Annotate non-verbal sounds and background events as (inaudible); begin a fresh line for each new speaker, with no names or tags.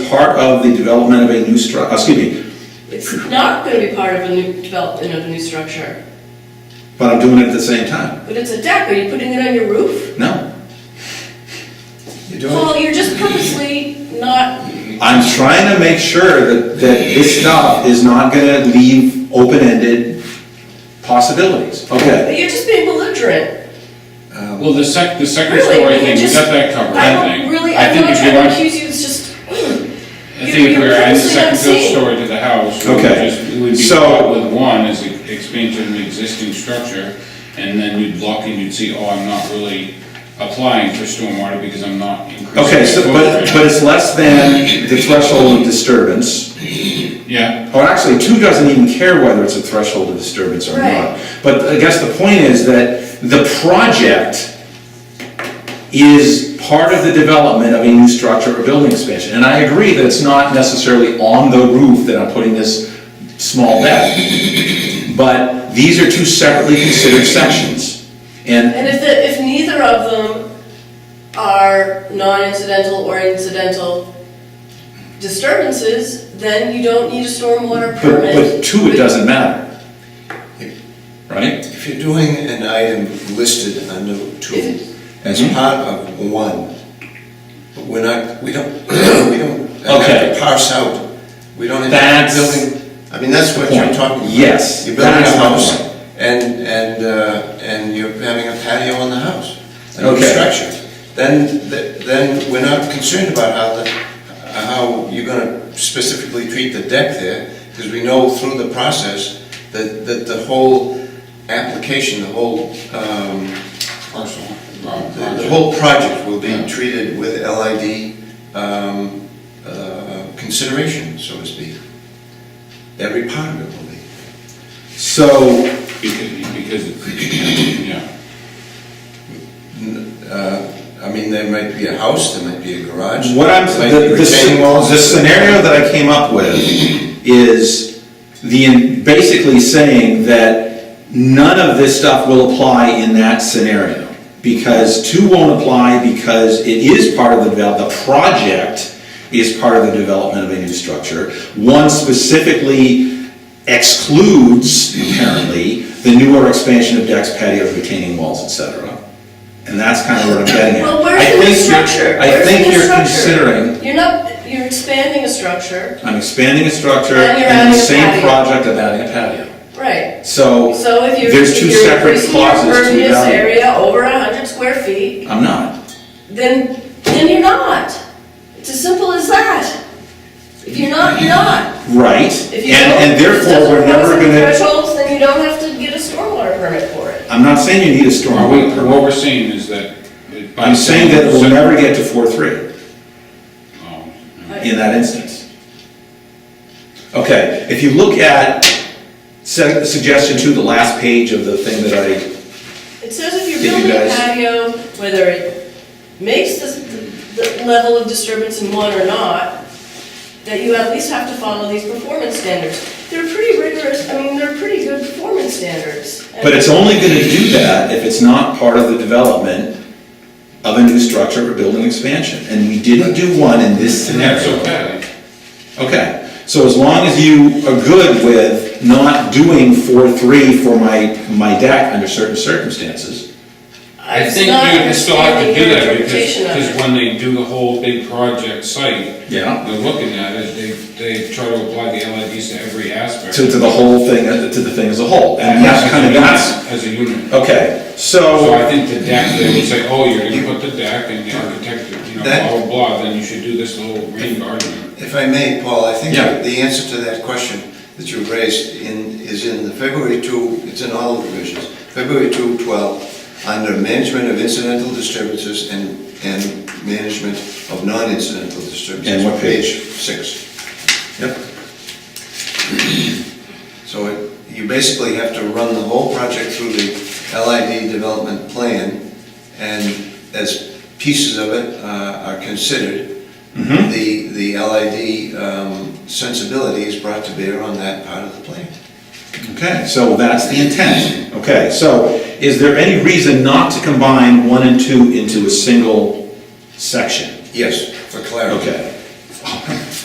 part of the development of a new stru, uh, excuse me,
It's not going to be part of a new development of a new structure,
but I'm doing it at the same time.
but it's a deck. Are you putting it on your roof?
No,
You're doing,
Paul, you're just purposely not,
I'm trying to make sure that, that this stuff is not gonna leave open-ended possibilities. Okay,
but you're just being belligerent.
Well, the sec, the second story
Really,
thing,
you're
we
just.
got that covered, I
don't
think.
Really,
I
I'm
think
not
if you
trying to
want-
accuse you, it's just.
I think if we were adding the second, third story to the house, we would
Okay.
just, it would be
So-
caught with one as an expansion of an existing structure, and then you'd look and you'd see, oh, I'm not really applying for stormwater because I'm not increasing.
okay,
my
so, but,
footprint.
but it's less than the threshold of disturbance.
Yeah,
Well, actually, two doesn't even care whether it's a threshold of disturbance or not.
Right.
But I guess the point is that the project is part of the development of a new structure or building expansion. And I agree that it's not necessarily on the roof that I'm putting this small deck. But these are two separately considered sections. And,
And if the, if neither of them are non-incidental or incidental disturbances, then you don't need a stormwater
but,
permit.
but two, it doesn't matter. Right?
if you're doing an item listed under two as
Mhm.
part of one, but we're not, we don't, (clears throat) we don't have
Okay.
to parse out, we don't have
That's
to building, I mean, that's what you're
point.
talking about.
Yes,
You're building
that's
a
my
house,
point.
and, and, uh, and you're having a patio on the house, a new
Okay.
structure. Then, th- then we're not concerned about how the, how you're gonna specifically treat the deck there, because we know through the process that, that the whole application, the whole, um,
parcel. um,
the the whole project will be treated with LID um, uh, consideration, so to speak. Every part of it will be.
So,
Because, because, it's- yeah,
Uh, I mean, there might be a house, there might be a garage.
What I'm,
there might
the,
be
the sce-
retaining walls.
the scenario that I came up with is the, basically saying that none of this stuff will apply in that scenario. Because two won't apply because it is part of the develop, the project is part of the development of a new structure. One specifically excludes, apparently, the newer expansion of decks, patios, retaining walls, etc. And that's kind of what I'm getting at.
Well,
I
where's the new
think you're- I
structure? Where's the
think
new
you're
structure?
considering
You're not, you're expanding a structure,
I'm expanding a structure
And you're
and the
adding a
same
patio.
project of adding a patio.
right?
So,
So if you're,
there's
if
two
you're
separate
increasing your
clauses to
impervious
evaluate.
area over hundred square feet,
I'm not.
then, then you're not. It's as simple as that. If you're not, you're not.
Right,
If you don't,
and, and
if it
therefore,
doesn't
we're
pass
never
any
gonna,
Thresholds, then you don't have to get a stormwater permit for it.
I'm not saying you need a
Are we-
stormwater permit.
what we're saying is that. it- by
I'm saying that we'll
separate-
never get to four three
Oh,
in that instance. Okay, if you look at se- suggestion two, the last page of the thing that I,
It says if you're
Did you
building a
guys-
patio, whether it makes the, the level of disturbance in one or not, that you at least have to follow these performance standards. They're pretty rigorous, I mean, they're pretty good performance standards. And-
but it's only gonna do that if it's not part of the development of a new structure or building expansion, and we didn't do one in this
And
scenario.
that's okay.
Okay, so as long as you are good with not doing four, three for my, my deck under certain circumstances,
I
It's
think
not
you still have to
understanding
do
your
that because,
interpretation of it.
because when they do the whole big project site,
yeah,
they're looking at it, they, they try to apply the LIDs to every aspect.
to, to the whole thing, to the thing as a whole, and that's kind of, that's,
As a unit.
okay,
So
so,
I think the deck, they would say, oh, you're gonna put the deck and the architect, you know,
That-
blah, blah, blah, then you should do this little rain garden.
If I may, Paul, I think
Yeah.
the answer to that question that you raised in, is in the February 2, it's in all the provisions, February 2, 12, under management of incidental disturbances and, and management of non-incidental disturbances.
And what page?
Six.
yep,
So it- you basically have to run the whole project through the LID development plan, and as pieces of it uh, are considered,
mhm,
the, the LID um, sensibility is brought to bear on that part of the plan.
okay, so that's the intent. Okay, so is there any reason not to combine one and two into a single section?
Yes, for clarity.
Okay,